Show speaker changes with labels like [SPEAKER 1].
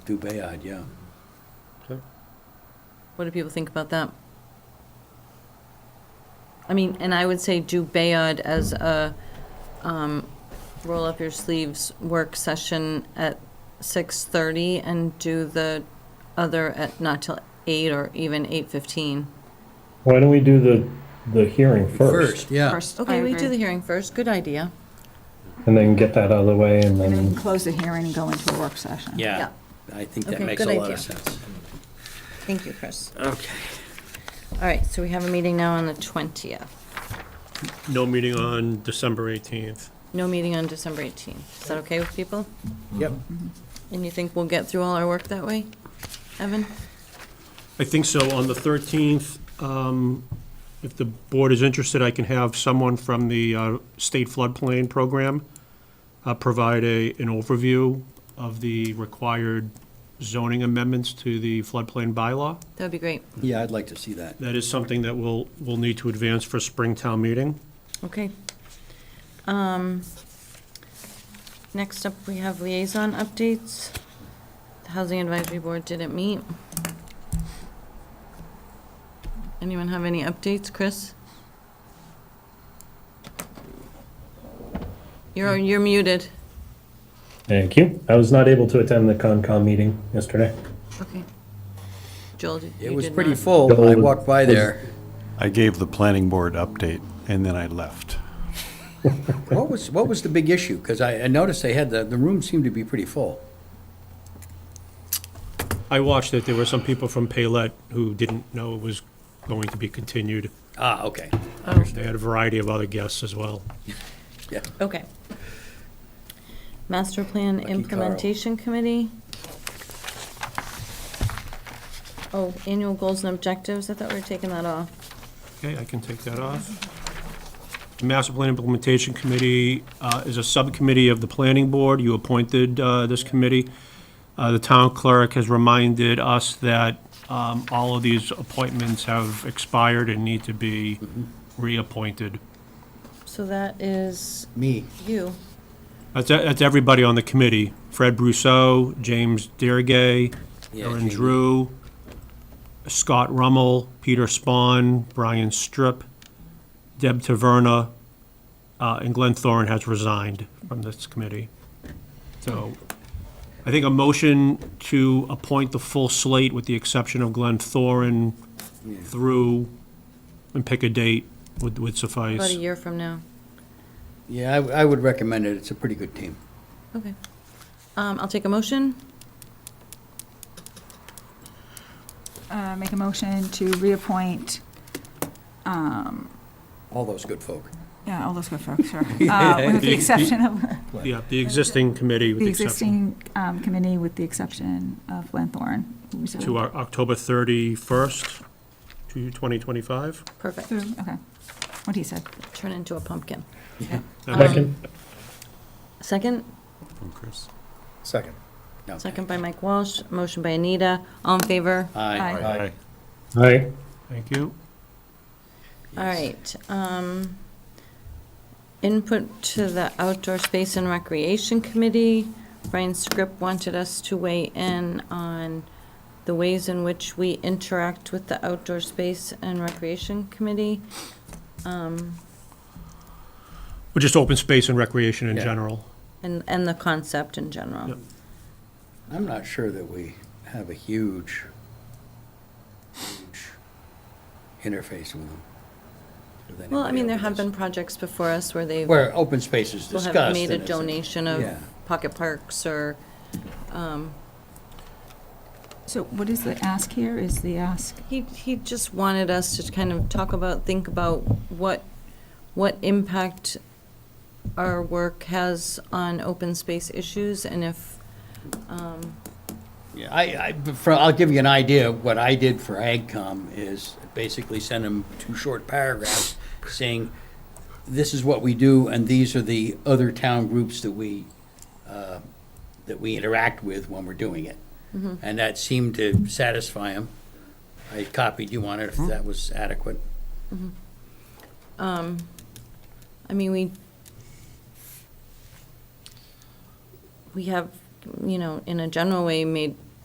[SPEAKER 1] through Bayard, yeah.
[SPEAKER 2] What do people think about that? I mean, and I would say do Bayard as a, um, roll up your sleeves work session at six thirty and do the other at not till eight or even eight fifteen.
[SPEAKER 3] Why don't we do the, the hearing first?
[SPEAKER 1] yeah.
[SPEAKER 4] First, I
[SPEAKER 2] Okay, we do
[SPEAKER 4] agree.
[SPEAKER 2] the hearing first, good idea.
[SPEAKER 3] And then get that out of the way and
[SPEAKER 4] And then
[SPEAKER 3] then,
[SPEAKER 4] close the hearing and go into a work session.
[SPEAKER 1] Yeah, I think that
[SPEAKER 2] Okay,
[SPEAKER 1] makes a
[SPEAKER 2] good
[SPEAKER 1] lot
[SPEAKER 2] idea.
[SPEAKER 1] of sense.
[SPEAKER 2] Thank you, Chris.
[SPEAKER 1] Okay.
[SPEAKER 2] All right, so we have a meeting now on the twentieth.
[SPEAKER 5] No meeting on December 18th.
[SPEAKER 2] No meeting on December eighteenth. Is that okay with people?
[SPEAKER 1] Yep.
[SPEAKER 2] And you think we'll get through all our work that way, Evan?
[SPEAKER 5] I think so. On the 13th, um, if the board is interested, I can have someone from the uh, state floodplain program uh, provide a, an overview of the required zoning amendments to the floodplain bylaw.
[SPEAKER 2] That'd be great.
[SPEAKER 1] Yeah, I'd like to see that.
[SPEAKER 5] That is something that we'll, we'll need to advance for spring town meeting.
[SPEAKER 2] Okay. Um, Next up, we have liaison updates. The Housing Advisory Board didn't meet. Anyone have any updates, Chris? You're, you're muted.
[SPEAKER 3] thank you. I was not able to attend the Concom meeting yesterday.
[SPEAKER 2] Okay. Joel, did- you
[SPEAKER 1] It was
[SPEAKER 2] did
[SPEAKER 1] pretty
[SPEAKER 2] not-
[SPEAKER 1] full. I walked by there.
[SPEAKER 6] I gave the planning board update, and then I left.
[SPEAKER 1] What was, what was the big issue? Because I I noticed they had, the, the room seemed to be pretty full.
[SPEAKER 5] I watched it. There were some people from Paylette who didn't know it was going to be continued.
[SPEAKER 1] Ah, okay,
[SPEAKER 5] They had a variety of other guests as well.
[SPEAKER 1] yeah.
[SPEAKER 2] Okay. Master Plan
[SPEAKER 1] Lucky Carl.
[SPEAKER 2] Implementation Committee. Oh, annual goals and objectives, I thought we were taking that off.
[SPEAKER 5] Okay, I can take that off. The Master Plan Implementation Committee uh, is a subcommittee of the Planning Board. You appointed uh, this committee. Uh, The town clerk has reminded us that um, all of these appointments have expired and need to be reappointed.
[SPEAKER 2] So that is
[SPEAKER 1] Me.
[SPEAKER 2] you.
[SPEAKER 5] That's, e, that's everybody on the committee. Fred Brousseau, James Dergay,
[SPEAKER 1] Yeah,
[SPEAKER 5] Aaron
[SPEAKER 1] Jamie.
[SPEAKER 5] Drew, Scott Rummel, Peter Spawn, Brian Strip, Deb Taverna, uh, and Glenn Thorne has resigned from this committee. So I think a motion to appoint the full slate with the exception of Glenn Thorne through, and pick a date would would suffice.
[SPEAKER 2] About a year from now.
[SPEAKER 1] Yeah, I, w- I would recommend it. It's a pretty good team.
[SPEAKER 2] Okay. Um, I'll take a motion.
[SPEAKER 4] Uh, Make a motion to reappoint, um,
[SPEAKER 1] All those good folk.
[SPEAKER 4] yeah, all those good folks, sure. Uh, With the exception of
[SPEAKER 5] Yeah, the existing committee with
[SPEAKER 4] the
[SPEAKER 5] the exception.
[SPEAKER 4] existing um, committee, with the exception of Glenn Thorne. who's a-
[SPEAKER 5] to our October 31st, to 2025.
[SPEAKER 2] Perfect.
[SPEAKER 4] Through- Okay, what he said.
[SPEAKER 2] Turn into a pumpkin.
[SPEAKER 3] Second,
[SPEAKER 2] Second,
[SPEAKER 6] From Chris?
[SPEAKER 7] Second.
[SPEAKER 1] No.
[SPEAKER 2] second by Mike Walsh, motion by Anita. All in favor?
[SPEAKER 1] Aye.
[SPEAKER 4] Aye.
[SPEAKER 3] aye.
[SPEAKER 5] Thank you.
[SPEAKER 2] All right, um, input to the Outdoor Space and Recreation Committee. Brian Scrip wanted us to weigh in on the ways in which we interact with the Outdoor Space and Recreation Committee. Um,
[SPEAKER 5] Well, just open space and recreation in
[SPEAKER 1] Yeah.
[SPEAKER 5] general.
[SPEAKER 2] and, and the concept in general.
[SPEAKER 5] Yep.
[SPEAKER 1] I'm not sure that we have a huge, huge interface with them. with
[SPEAKER 2] Well, I
[SPEAKER 1] anybody
[SPEAKER 2] mean, there
[SPEAKER 1] other
[SPEAKER 2] have
[SPEAKER 1] than-
[SPEAKER 2] been projects before us where they've,
[SPEAKER 1] Where open space is
[SPEAKER 2] will
[SPEAKER 1] discussed.
[SPEAKER 2] have made a
[SPEAKER 1] and it's
[SPEAKER 2] donation of
[SPEAKER 1] Yeah.
[SPEAKER 2] pocket parks or, um,
[SPEAKER 4] So what is the ask here, is the ask?
[SPEAKER 2] He, he just wanted us to kind of talk about, think about what, what impact our work has on open space issues and if, um,
[SPEAKER 1] Yeah, I, I, but for, I'll give you an idea, of what I did for AgCom is basically send them two short paragraphs saying, this is what we do, and these are the other town groups that we, uh, that we interact with when we're doing it.
[SPEAKER 2] Mm-hmm.
[SPEAKER 1] And that seemed to satisfy them. I copied you on it, if that was adequate.
[SPEAKER 2] um, I mean, we, we have, you know, in a general way, made